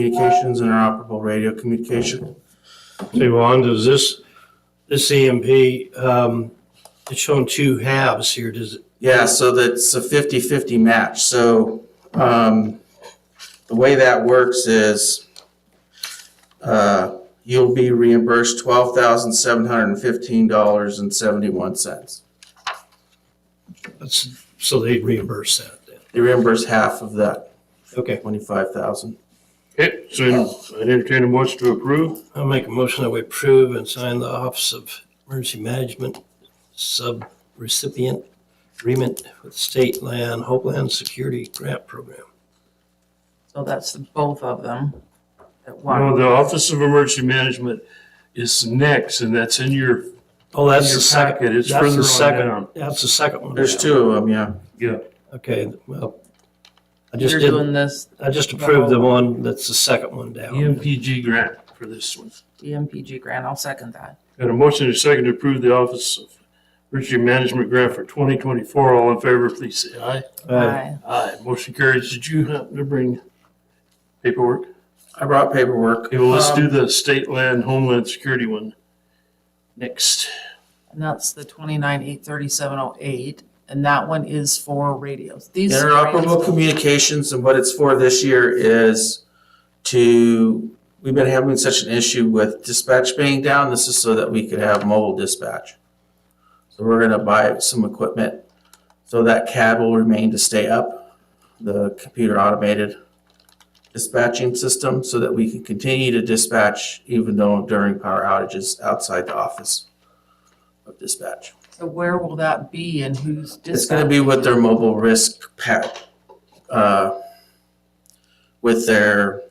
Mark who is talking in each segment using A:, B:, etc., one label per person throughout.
A: communications, interoperable radio communication.
B: Say, Ron, does this, this EMP, um, it's showing two halves here, does it?
A: Yeah, so that's a 50-50 match. So um, the way that works is uh, you'll be reimbursed twelve thousand seven hundred and fifteen dollars and seventy-one cents.
B: That's, so they reimburse that then.
A: They reimburse half of that
B: Okay,
A: twenty-five thousand.
C: Okay, so I entertain a motion to approve.
B: I'll make a motion that we approve and sign the Office of Emergency Management Sub-Recipient Agreement with State Land, Homeland Security Grant Program.
D: So that's the both of them at
C: No,
D: once.
C: the Office of Emergency Management is next, and that's in your,
B: Oh, that's
C: Your
B: the second.
C: packet is
B: that's the
C: further on
B: second-
C: down.
B: That's the second one.
A: There's
B: down.
A: two of them, yeah.
C: yeah.
B: Okay, well, I just
D: You're
B: did,
D: doing this
B: I just approved the one, that's the second one
C: E
B: down.
C: EMPG grant for this one.
D: E DMPG grant, I'll second that.
C: Got a motion and a second to approve the Office of Emergency Management grant for 2024. All in favor, please say aye.
B: Uh,
D: Aye.
C: Aye. Motion carries. Did you happen to bring paperwork?
A: I brought paperwork.
C: Okay, well, let's do
A: Um,
C: the state land homeland security one next.
D: And that's the twenty-nine, eight, thirty-seven, oh, eight, and that one is for radios. These are
A: Interoperable
D: radios.
A: communications and what it's for this year is to, we've been having such an issue with dispatch being down. This is so that we could have mobile dispatch. So we're gonna buy some equipment so that CAD will remain to stay up, the computer automated dispatching system, so that we can continue to dispatch even though during power outages outside the office of dispatch.
D: So where will that be and who's
A: It's gonna be
D: dispatching?
A: with their mobile risk pack, uh, with their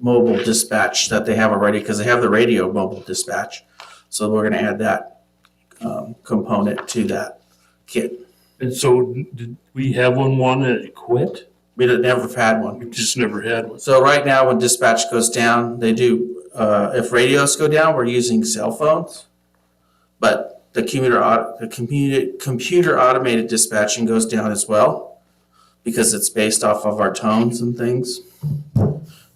A: mobile dispatch that they have already, because they have the radio mobile dispatch. So we're gonna add that, um, component to that kit.
C: And so did we have one, one that quit?
A: We don't- never had one.
C: We just never had one.
A: So right now, when dispatch goes down, they do, uh, if radios go down, we're using cell phones. But the commuter, au- the computer, computer automated dispatching goes down as well because it's based off of our tones and things.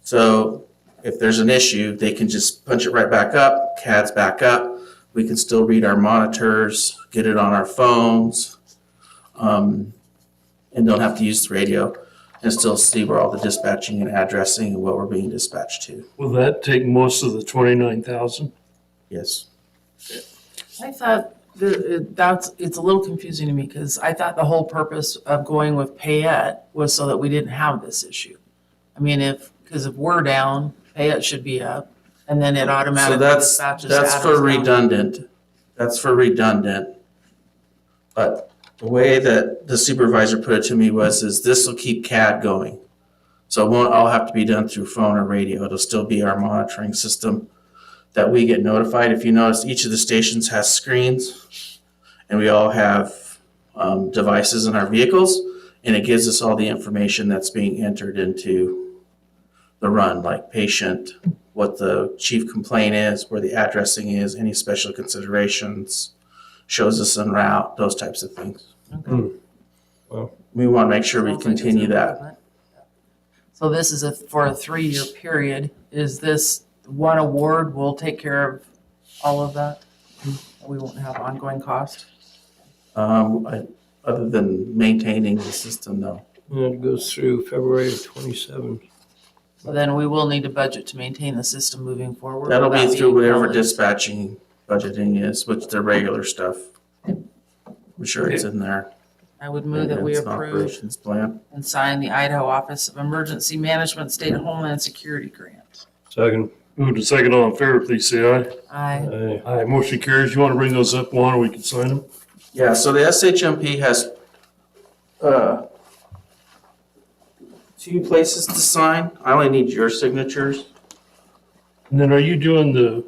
A: So if there's an issue, they can just punch it right back up, CAD's back up. We can still read our monitors, get it on our phones, um, and don't have to use the radio and still see where all the dispatching and addressing and what we're being dispatched to.
C: Will that take most of the twenty-nine thousand?
A: Yes.
D: I thought the, it- that's, it's a little confusing to me because I thought the whole purpose of going with Payette was so that we didn't have this issue. I mean, if, because if we're down, Payette should be up and then it
A: So
D: automatically
A: that's,
D: dispatches.
A: that's
D: to
A: for
D: Adams County.
A: redundant. That's for redundant. But the way that the supervisor put it to me was, is this will keep CAD going. So it won't all have to be done through phone or radio. It'll still be our monitoring system that we get notified. If you notice, each of the stations has screens and we all have um, devices in our vehicles and it gives us all the information that's being entered into the run, like patient, what the chief complaint is, where the addressing is, any special considerations, shows us en route, those types of things.
B: Hmm. Well.
A: We want to make sure we
D: Sounds like it's
A: continue
D: an
A: that.
D: improvement. So this is a, for a three-year period, is this one award will take care of all of that? We won't have ongoing cost?
A: Um, I- Other than maintaining the system, though.
B: And it goes through February of twenty-seven.
D: So then we will need a budget to maintain the system moving forward.
A: That'll be
D: without
A: through whatever
D: village.
A: dispatching budgeting is, which the regular stuff. I'm sure it's in there.
D: I would move that we
A: Maintenance and
D: approve
A: Operations plan.
D: and sign the Idaho Office of Emergency Management State Homeland Security Grant.
B: Second.
C: Move to second all in favor, please say aye.
D: I,
B: Aye.
C: Aye, motion carries. You want to bring those up, Juan, or we can sign them?
A: Yeah, so the SHMP has uh, two places to sign. I only need your signatures.
C: And then are you doing the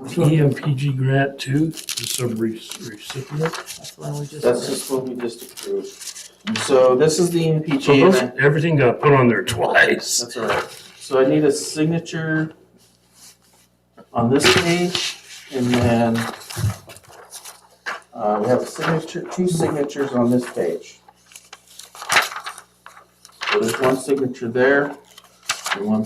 C: EMPG grant too, the sub-recipient?
D: that's the one we just.
A: That's just what we just approved. So this is the E
C: So
A: NPG. and
C: those,
A: I-
C: everything got put on there twice.
A: That's all right. So I need a signature on this page and then uh, we have a signature, two signatures on this page. So there's one signature there and one